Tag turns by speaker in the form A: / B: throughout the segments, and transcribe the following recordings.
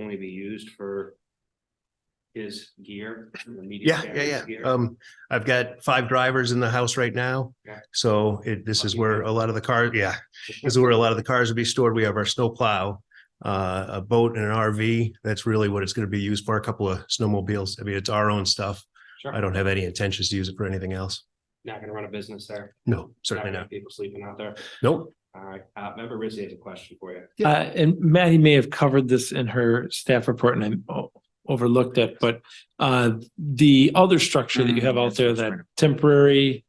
A: only be used for his gear. the media
B: Yeah,
A: cameras
B: yeah, yeah.
A: gear.
B: Um, I've got five drivers in the house right now.
A: Yeah.
B: So it, this is
A: Lucky
B: where a lot of the cars, yeah, this is where a lot of the cars will be stored. We have our snow plow, uh, a boat and an RV. That's really what it's going to be used for, a couple of snowmobiles. I mean, it's our own stuff.
A: Sure.
B: I don't have any intentions to use it for anything else.
A: Not gonna run a business there.
B: No,
A: Not
B: certainly
A: gonna
B: not.
A: have People sleeping out there.
B: Nope.
A: All right, uh, member Rizzi has a question for you.
B: Yeah.
C: Uh, and Maddie may have covered this in her staff report and I o- overlooked it, but uh, the other structure that you
B: Mm,
C: have out there, that temporary.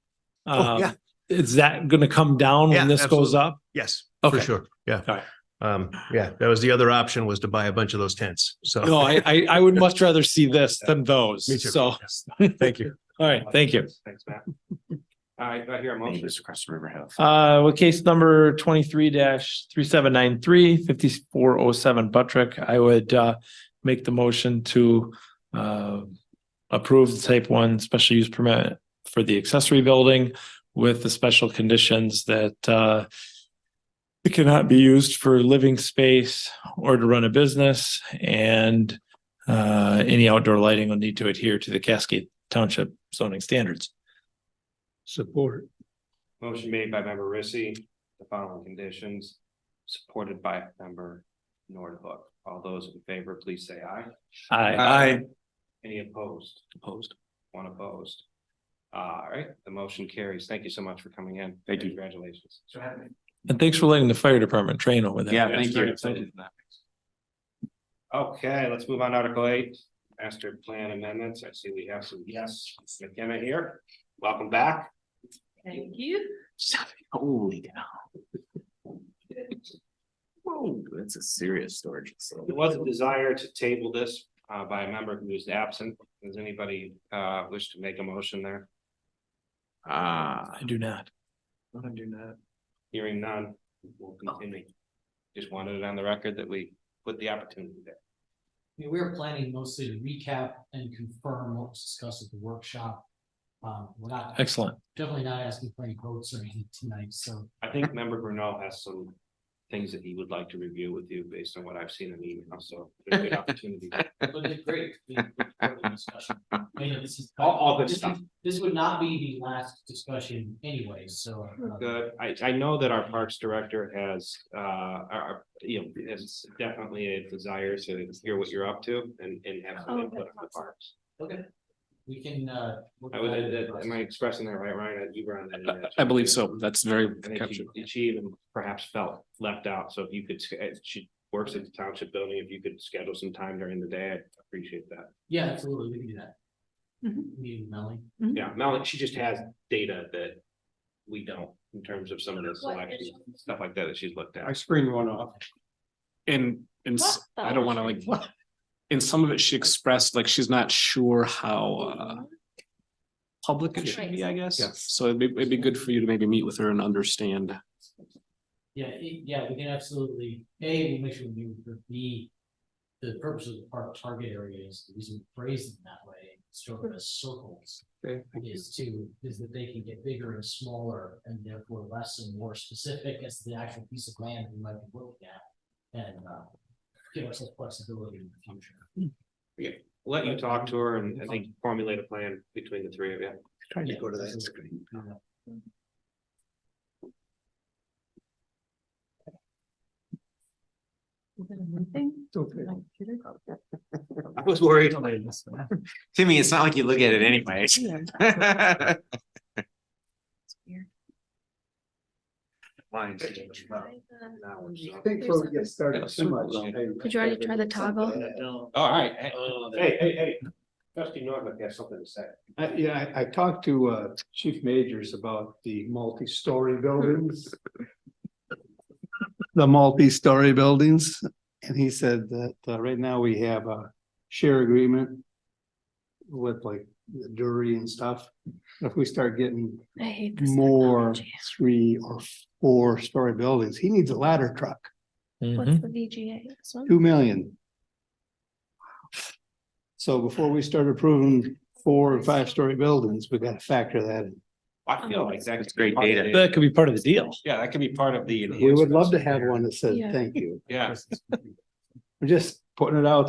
B: Oh,
C: um,
B: yeah.
C: Is that going to come down
B: Yeah,
C: when this goes
B: absolutely.
C: up?
B: Yes, for
C: Okay.
B: sure. Yeah.
C: All right.
B: Um, yeah, that was the other option was to buy a bunch of those tents.
C: No,
B: So,
C: I, I, I would much rather see this than those.
B: Me too.
C: So,
B: thank you.
C: all right, thank you.
A: Thanks, Matt. All right, do I hear a motion.
D: across the river house.
C: Uh, well, case number twenty-three 3793 three seven nine three fifty-four oh seven Buttrick, I would uh make the motion to uh approve the type one special use permit for the accessory building with the special conditions that uh it cannot be used for living space or to run a business and uh any outdoor lighting will need to adhere to the Cascade Township zoning standards. Support.
A: Motion made by member Rissy, the following conditions, supported by member Nordhook. All those in favor, please say aye.
C: Aye.
A: Any opposed?
C: Opposed.
A: One opposed. All right, the motion carries. Thank you so much for coming in.
D: Thank you.
A: Congratulations.
C: And thanks for letting the fire department train over there.
D: Yeah, thank you.
A: Okay, let's move on to Article eight, master plan amendments. I see we have some, yes, Ms. McKenna here. Welcome back.
E: Thank you.
D: Holy cow. Whoa, Oh, that's a serious storage.
A: There was a desire to table this uh by a member who is absent. Does anybody uh wish to make a motion there?
D: Ah,
C: I do not.
A: Hearing none, we'll continue. Just wanted it on the record that we put the opportunity there.
F: Yeah, we were planning mostly to recap and confirm what was discussed at the workshop. Um, we're not,
C: Excellent.
F: definitely not asking for any votes or anything tonight, so.
A: I think member Bruno has some things that he would like to review with you based on what I've seen in the email, so. there's a good opportunity.
F: But it's great. We- we- we discussion. I mean, this is-
A: All- all good
F: this
A: stuff.
F: would- This would not be the last discussion anyway, so. uh,
A: Good. I, I know that our parks director has, uh, our, our- you know, has definitely a desire to hear what you're up to and, and have some
E: Oh,
A: input
E: that's
A: on the
E: awesome.
A: parks.
F: Okay. We can, uh. work
A: I was,
F: on it.
A: am I expressing that right, Ryan? You were on that.
D: I believe so. That's very
A: I think she-
D: captured.
A: she even perhaps felt left out, so if you could, sch- uh, she works at the township building, if you could schedule some time during the day, I'd appreciate that.
F: Yeah, absolutely, we can do that.
E: Mhm.
F: Me and Melanie.
A: Yeah, Melanie, she just has data that we don't in terms of some of the selections, stuff like that that she's looked at.
D: screened one off.
G: And, and s-
E: What
G: I
E: the-
G: don't wanna like, in some of it, she expressed like she's not sure how, uh, public it
E: That's
G: should
E: right.
G: be, I guess.
B: Yeah.
G: So it'd be, it'd be good for you to maybe meet with her and understand.
F: Yeah, it- yeah, we can absolutely, A, we'll make sure we meet with B. The purpose of the park target area is the reason we phrase them that way, sort of as circles. Is to, is that they can get bigger and smaller and therefore less and more specific as to the actual piece of land we might be looking at. And uh, give us some flexibility in the future.
A: Let you talk to her and I think formulate a plan between the three of you.
F: Trying to go to that screen.
D: I was worried. Timmy, it's not like you look at it anyways. Mine.
A: Now we're just-
E: before we get
A: started too much,
E: Did you already try the toggle?
A: All right. Hey, hey, hey, hey. Trustee Norman has something to say.
H: I, yeah, I, I talked to, uh, Chief Majors about the multi-story buildings. The multi-story buildings, and he said that, uh, right now we have a share agreement. With like the jury and stuff, if we start getting
E: I hate this.
H: more
E: technology.
H: three or four story buildings, he needs a ladder truck,
C: Mm-hmm.
E: What's the VGA? This one?
H: two million. So before we start approving four and five story buildings, we gotta factor that in.
A: I feel like that's
D: That's great data.
C: That could be part of the deal.
A: Yeah, that could be part of the.
H: We would love to have one that says,
E: Yeah.
H: thank you.
A: Yeah.
H: We're Just putting it out